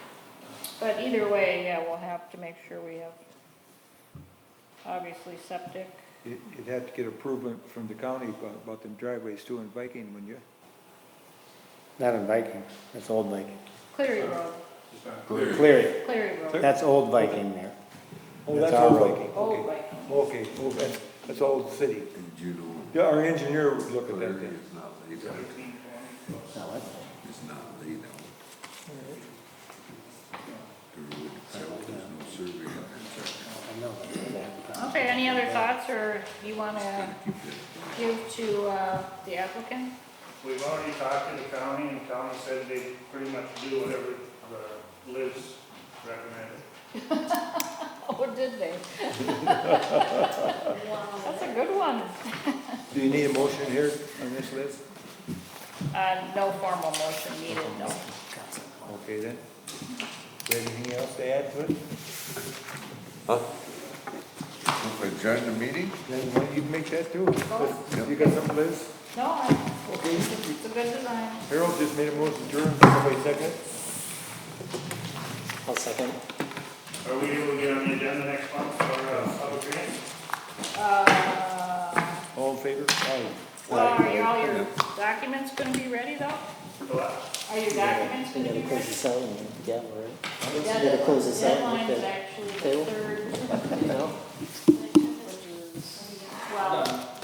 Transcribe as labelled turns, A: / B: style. A: But either way, yeah, we'll have to make sure we have, obviously septic.
B: It- You'd have to get approval from the county about, about them driveways too in Viking, when you,
C: Not in Viking, that's Old Viking.
A: Cleary Road,
C: Cleary,
A: Cleary Road,
C: that's Old Viking there.
B: oh,
C: That's
B: that's
C: our
B: Old
C: road.
B: Viking,
A: Old
B: okay.
A: Viking.
B: Okay, oh, that's, that's Old City.
D: And Judo
B: Yeah, our engineer would look at that
D: Prairie
B: thing.
D: is not laid out,
C: No, that's-
D: it's not laid out. The road itself, there's no survey on it, so
C: I know that's-
A: Okay, any other thoughts, or you wanna
D: I keep that.
A: give to, uh, the applicant?
E: We've already talked to the county, and the county said they pretty much do whatever the lives recommended.
A: Oh, did they? That's a good one.
B: Do you need a motion here on this list?
A: Uh, no formal motion needed, no.
B: Okay, then. Do you have anything else to add to it?
D: Okay, Join the meeting?
B: Then why don't you make that too? You got something, Liz?
A: No, I-
B: Okay.
A: it's a good design.
B: Harold just made a motion, Jordan, somebody second it?
C: I'll second.
E: Are we able to get on the agenda next month for a public hearing?
A: Uh,
B: All in favor? Aye.
A: well, are your, all your documents gonna be ready though?
E: The last-
A: Are your documents
F: We
A: gonna be
F: gotta close this out
A: ready?
F: and gavel, right?
A: Yeah,
F: gotta
A: the
F: close this out like
A: Deadline is
F: that.
A: actually the
F: Table?
A: third.
F: You know?